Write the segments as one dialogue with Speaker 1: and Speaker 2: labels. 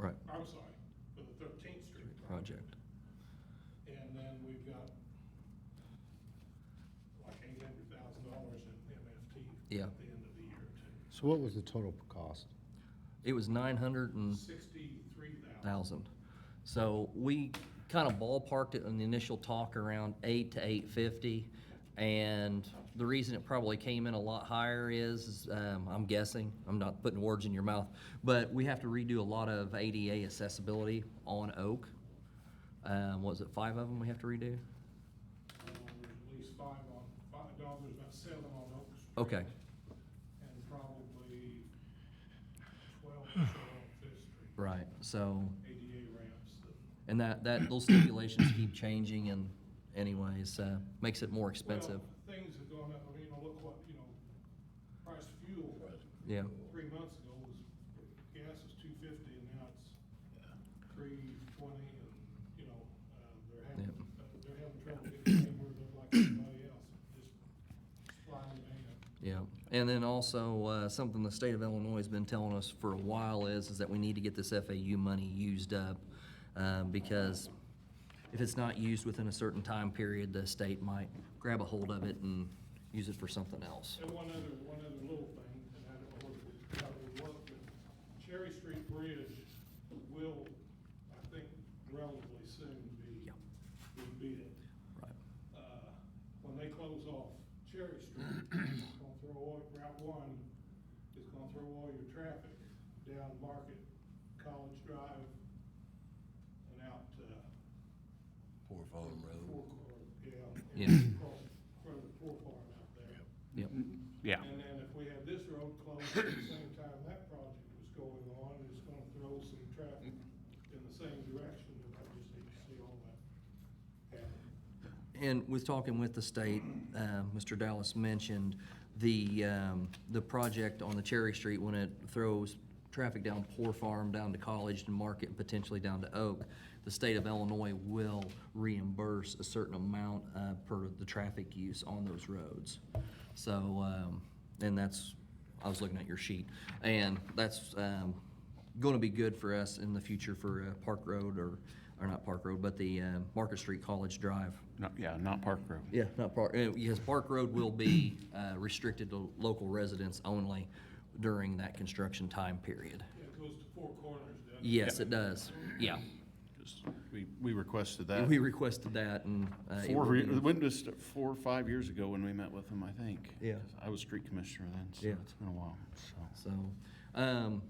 Speaker 1: our side for the Thirteenth Street
Speaker 2: project.
Speaker 1: And then we've got like eight hundred thousand dollars in MFT
Speaker 2: Yeah.
Speaker 1: at the end of the year too.
Speaker 3: So what was the total cost?
Speaker 2: It was nine hundred and
Speaker 1: Sixty-three thousand.
Speaker 2: thousand. So we kind of ballparked it in the initial talk around eight to eight fifty. And the reason it probably came in a lot higher is, is, um, I'm guessing, I'm not putting words in your mouth, but we have to redo a lot of ADA accessibility on Oak. Um, was it five of them we have to redo?
Speaker 1: There's at least five on, five dollars, about seven on Oak Street.
Speaker 2: Okay.
Speaker 1: And probably twelve or so on Fifth Street.
Speaker 2: Right, so,
Speaker 1: ADA ramps that.
Speaker 2: and that, that, those stipulations keep changing and anyways, uh, makes it more expensive.
Speaker 1: Well, Things have gone up, I mean, you know, look what, you know, price of fuel.
Speaker 2: Yeah.
Speaker 1: Three months ago was, gas was two fifty and now it's three twenty and, you know, uh, they're having,
Speaker 2: Yeah.
Speaker 1: uh, they're having trouble getting anywhere to like everybody else, just flying man.
Speaker 2: Yeah, and then also, uh, something the state of Illinois has been telling us for a while is, is that we need to get this FAU money used up. Um, because if it's not used within a certain time period, the state might grab a hold of it and use it for something else.
Speaker 1: And one other, one other little thing, and I don't know whether it's probably what, but Cherry Street Bridge will, I think, relatively soon be,
Speaker 2: Yeah.
Speaker 1: be bid.
Speaker 2: Right.
Speaker 1: Uh, When they close off Cherry Street, it's gonna throw all, Route One is gonna throw all your traffic down Market, College Drive, and out, uh,
Speaker 4: Poor Farm
Speaker 1: Four
Speaker 4: Road.
Speaker 1: Court, yeah.
Speaker 2: Yeah.
Speaker 1: and across From the Poor Farm out there.
Speaker 2: Yep,
Speaker 5: Yeah,
Speaker 1: And then if we had this road closed at the same time that project was going on, it's gonna throw some traffic in the same direction, and I just hate to see all that happen.
Speaker 2: And with talking with the state, um, Mr. Dallas mentioned the, um, the project on the Cherry Street when it throws traffic down Poor Farm, down to College and Market, and potentially down to Oak. The state of Illinois will reimburse a certain amount uh, per the traffic use on those roads. So, um, and that's, I was looking at your sheet, and that's um, going to be good for us in the future for uh, Park Road or, or not Park Road, but the uh, Market Street College Drive.
Speaker 5: not, yeah, not Park Road.
Speaker 2: Yeah, not Park, uh, yes, Park Road will be uh, restricted to local residents only during that construction time period.
Speaker 1: Yeah, It goes to four corners, doesn't it?
Speaker 2: Yes, it does, yeah.
Speaker 5: 'Cause We, we requested that.
Speaker 2: We requested that and. uh, it
Speaker 5: Uh, Four,
Speaker 2: will
Speaker 5: re-
Speaker 2: be-
Speaker 5: when was, it? four or five years ago when we met with them, I think.
Speaker 2: Yeah.
Speaker 5: 'Cause I was street commissioner then, so
Speaker 2: Yeah.
Speaker 5: it's been a while, so.
Speaker 2: So, um,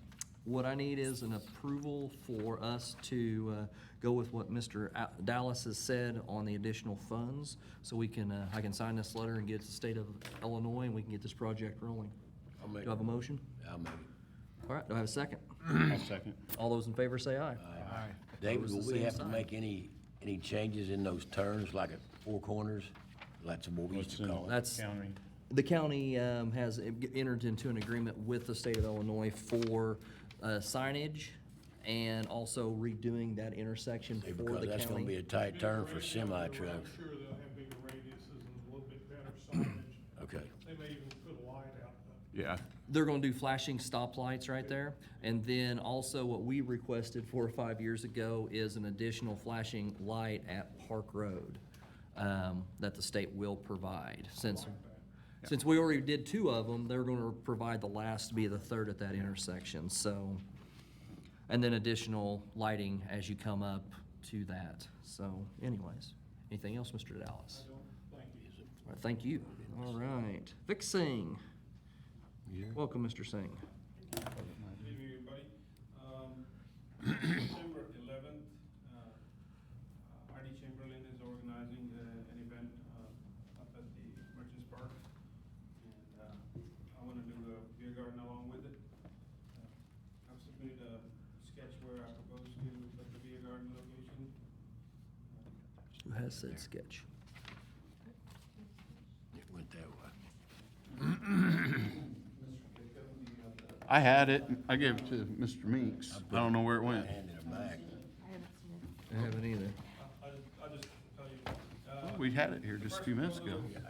Speaker 2: what I need is an approval for us to, uh, go with what Mr. Al- Dallas has said on the additional funds. So we can, uh, I can sign this letter and get it to the state of Illinois and we can get this project rolling.
Speaker 4: I'll
Speaker 2: Do
Speaker 4: make,
Speaker 2: I have a motion?
Speaker 4: I'll make it.
Speaker 2: All right, do I have a second?
Speaker 5: I'll second.
Speaker 2: All those in favor say aye.
Speaker 4: David,
Speaker 2: the
Speaker 4: will we
Speaker 2: same
Speaker 4: have to
Speaker 2: side.
Speaker 4: make any, any changes in those turns, like at Four Corners? That's what we used to call it.
Speaker 2: That's,
Speaker 5: County.
Speaker 2: the county um, has entered into an agreement with the state of Illinois for uh, signage and also redoing that intersection
Speaker 4: Hey,
Speaker 2: for
Speaker 4: Because
Speaker 2: the
Speaker 4: that's gonna be a
Speaker 2: county.
Speaker 4: tight turn
Speaker 1: Bigger
Speaker 4: for
Speaker 1: radius, they're-
Speaker 4: semi trucks.
Speaker 1: I'm sure they'll have bigger radiuses and a little bit better signage.
Speaker 4: Okay.
Speaker 1: They may even put a light out, but
Speaker 5: Yeah.
Speaker 2: They're gonna do flashing stoplights right there. And then also what we requested four or five years ago is an additional flashing light at Park Road um, that the state will provide. Since, since we already did two of them, they're gonna provide the last to be the third at that intersection, so. And then additional lighting as you come up to that. So anyways, anything else, Mr. Dallas?
Speaker 1: I don't think it is.
Speaker 2: All right, Thank you. All right. Vic Singh. Welcome, Mr. Singh.
Speaker 6: Good evening, everybody. Um, September eleventh, Artie Chamberlain is organizing uh, an event uh, up at the Merchants Park. And uh, I want to do a beer garden along with it. Uh, I've submitted a sketch where I propose to put the beer garden location. Uh,
Speaker 2: Who has said sketch?
Speaker 4: It went that way.
Speaker 6: Mr. Jacob, do you have the?
Speaker 5: I had it, I gave it to Mr. Meeks, I don't know where it went.
Speaker 4: Handed it back.
Speaker 7: I haven't seen it.
Speaker 2: I haven't either.
Speaker 6: I'll, I'll just- I'll just tell you. uh,
Speaker 5: We had it here just a few minutes ago.
Speaker 6: The first proposal Uh,
Speaker 1: uh,